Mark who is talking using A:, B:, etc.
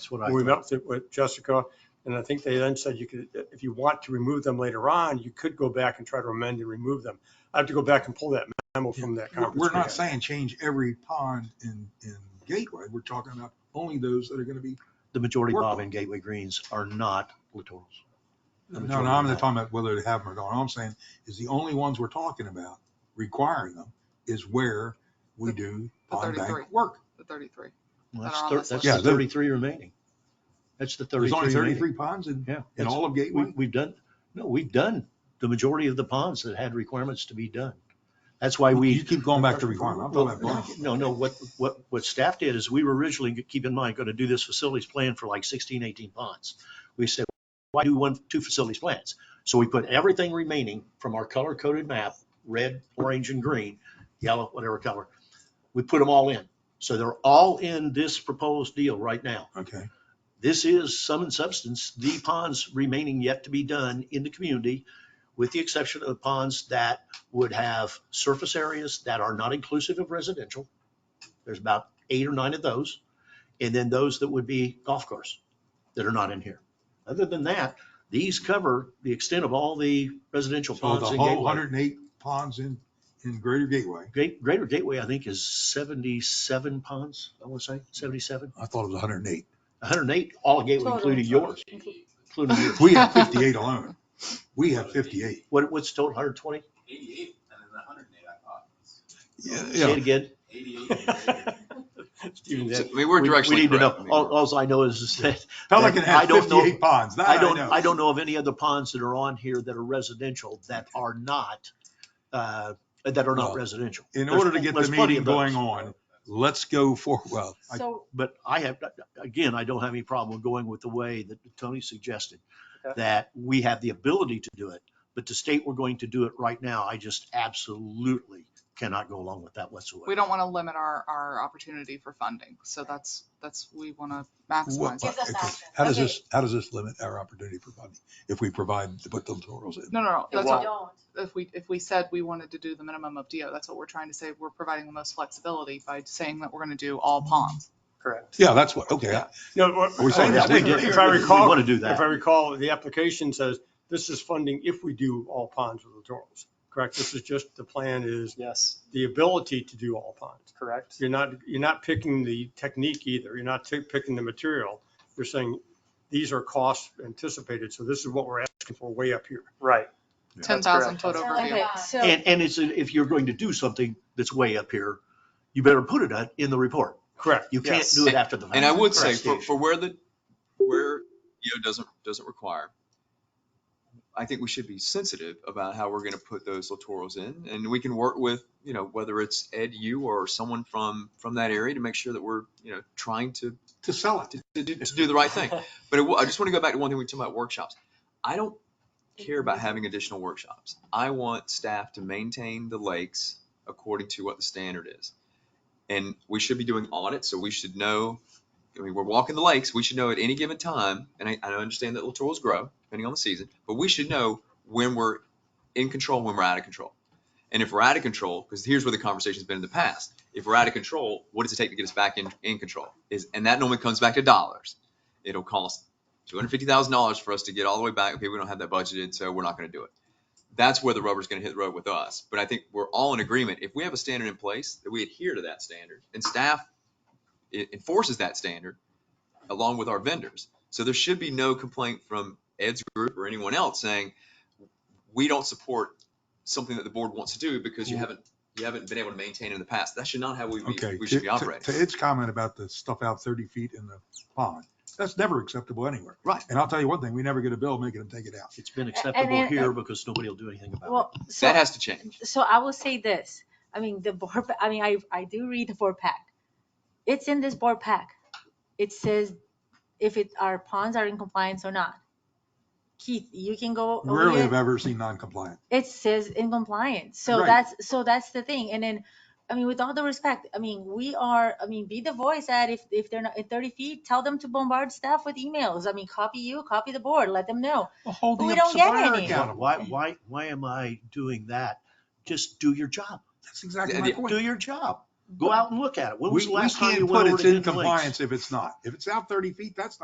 A: That's what I
B: We
A: thought.
B: met with- with Jessica, and I think they then said you could, if you want to remove them later on, you could go back and try to amend and remove them. I have to go back and pull that memo from that
C: We're-
B: conference.
C: We're
B: we
C: not
B: had.
C: saying change every pond in, in Gateway. We're talking about only those that are going to be,
A: The majority,
C: Work
A: Bob,
C: on.
A: in Gateway Greens are not littorals.
C: no, no, I'm not talking about whether to have them or not. All I'm saying is the only ones we're talking about requiring them is where we do
D: The
C: pond
D: 33.
C: bank work.
D: the 33.
A: Well,
D: That
A: That's
D: are on
A: thir-
D: this
A: that's
C: list.
A: the
C: Yeah, they're-
A: thirty-three remaining. That's the
C: There's only
A: thirty-three remaining.
C: 33 ponds in,
A: Yeah.
C: in
A: that's-
C: all of
A: We,
C: Gateway.
A: we've done, no, we've done the majority of the ponds that had requirements to be done. That's why we.
C: You keep going back to requirement. I'm talking about
A: Well,
C: blanket.
A: No, no, what, what, what staff did is we were originally, keep in mind, going to do this facilities plan for like 16, 18 ponds. We said, why do one, two facilities plans? So we put everything remaining from our color coded map, red, orange and green, yellow, whatever color. We put them all in. So they're all in this proposed deal right now.
C: Okay.
A: This is sum and substance, the ponds remaining yet to be done in the community, with the exception of the ponds that would have surface areas that are not inclusive of residential. There's about eight or nine of those. And then those that would be golf course that are not in here. Other than that, these cover the extent of all the residential
C: So the
A: ponds in
C: whole
A: Gateway.
C: 108 ponds in, in Greater Gateway.
A: Great- Greater Gateway, I think, is 77 ponds, I want to say, 77,
C: I thought it was 108.
A: 108, all Gateway, including yours, including yours.
C: We have 58 alone. We have 58.
A: What, what's total, 120?
E: Eighty-eight and then hundred and eight, I thought.
A: Say it again.
E: Eighty-eight.
B: Steven,
F: So,
B: that-
F: We were
A: We- we
F: directionally
A: need to know.
F: correct. I mean,
A: All, alls I know is that,
C: Pelican
A: I
C: has
A: don't know-
C: 58 ponds. That
A: I don't,
C: know.
A: I don't know of any other ponds that are on here that are residential that are not, uh, that are not
C: Well,
A: residential.
C: in
A: There's
C: order to
A: pl-
C: get the
A: there's plenty
C: meeting
A: of those.
C: going on, let's go for, well, I-
G: So,
A: But I have, again, I don't have any problem going with the way that Tony suggested,
B: Okay.
A: that we have the ability to do it. But to state we're going to do it right now, I just absolutely cannot go along with that whatsoever.
D: We don't want to limit our, our opportunity for funding. So that's, that's, we want to
C: what-
D: maximize. it.
G: Gives us
C: okay.
G: options.
C: how does
G: Okay.
C: this, how does this limit our opportunity for funding if we provide, to put the littorals in?
D: No, no, no.
G: if
D: That's
G: we
D: all.
G: don't,
D: If we, if we said we wanted to do the minimum of DO, that's what we're trying to say. We're providing the most flexibility by saying that we're going to do all ponds.
B: Correct.
C: Yeah, that's what, okay. I-
B: No, what-
C: Are we saying
B: I
C: that? We
B: think
C: did-
B: If I
A: We
B: recall,
A: want to do
B: if I
A: that.
B: recall, the application says this is funding if we do all ponds with littorals, correct? This is just, the plan is
H: Yes,
B: the ability to do all ponds.
H: correct.
B: You're not, you're not picking the technique either. You're not t- picking the material. You're saying these are costs anticipated, so this is what we're asking for way up here.
H: Right.
C: Yeah.
D: 10,000
H: That's
D: foot
G: correct.
D: overview.
G: Okay.
I: So,
A: And, and it's, if you're going to do something that's way up here, you better put it on- in the report.
B: Correct.
A: You can't
H: Yes.
A: do it after the fact.
F: And I would say
A: Correct.
F: for, for where the, where, you know, doesn't, doesn't require, I think we should be sensitive about how we're going to put those littorals in. And we can work with, you know, whether it's Ed, you or someone from, from that area to make sure that we're, you know, trying to
C: To sell it.
F: to, to, do, to do the right thing. But it, wa- I just want to go back to one thing we were talking about workshops. I don't care about having additional workshops. I want staff to maintain the lakes according to what the standard is. And we should be doing audits, so we should know, I mean, we're walking the lakes, we should know at any given time, and I, I understand that littorals grow depending on the season, but we should know when we're in control, when we're out of control. And if we're out of control, because here's where the conversation's been in the past if we're out of control, what does it take to get us back in, in control? Is and that normally comes back to dollars. It'll cost two hundred fifty thousand dollars for us to get all the way back. Okay, we don't have that budgeted, so we're not going to do it. That's where the rubber's going to hit the road with us. But I think we're all in agreement. If we have a standard in place, that we adhere to that standard, and staff e- enforces that standard along with our vendors. So there should be no complaint from Ed's group or anyone else saying we don't support something that the board wants to do because you haven't you haven't been able to maintain in the past. That should not how we,
C: Okay.
F: we, we should be
C: to- to-
F: operating.
C: To its comment about the stuff out 30 feet in the pond, that's never acceptable anywhere.
F: Right.
C: And I'll tell you one thing, we never get a bill making them take it out.
A: It's been acceptable
I: and- uh,
A: here because nobody will do anything about
I: well,
F: That
I: so,
F: has to change.
I: so I will say this. I mean, the board, I mean, I, I do read the board pack. It's in this board pack. It says if it, our ponds are in compliance or not. Keith, you can go. over
C: Rarely
I: it.
C: have I ever seen non-compliant.
I: it says in compliance. So
C: Right.
I: that's, so that's the thing. And then, I mean, with all the respect, I mean, we are, I mean, be the voice that if, if they're not at thirty feet, tell them to bombard staff with emails. I mean, copy you, copy the board, let them know.
C: Well, holding
I: We
C: up
I: don't get
C: supplier
I: any.
A: it. Why-
C: accountable.
A: Why, why, why am I doing that? Just do your job.
C: That's exactly
F: Yeah,
C: my
F: yeah.
C: point.
A: Do your job. Go out and look at it. When was
C: We,
A: the
C: we
A: last time you
C: can't
A: went
C: put
A: over
C: it's
A: to
C: in
A: Hidden Lakes?
C: compliance if it's not. If it's out thirty feet, that's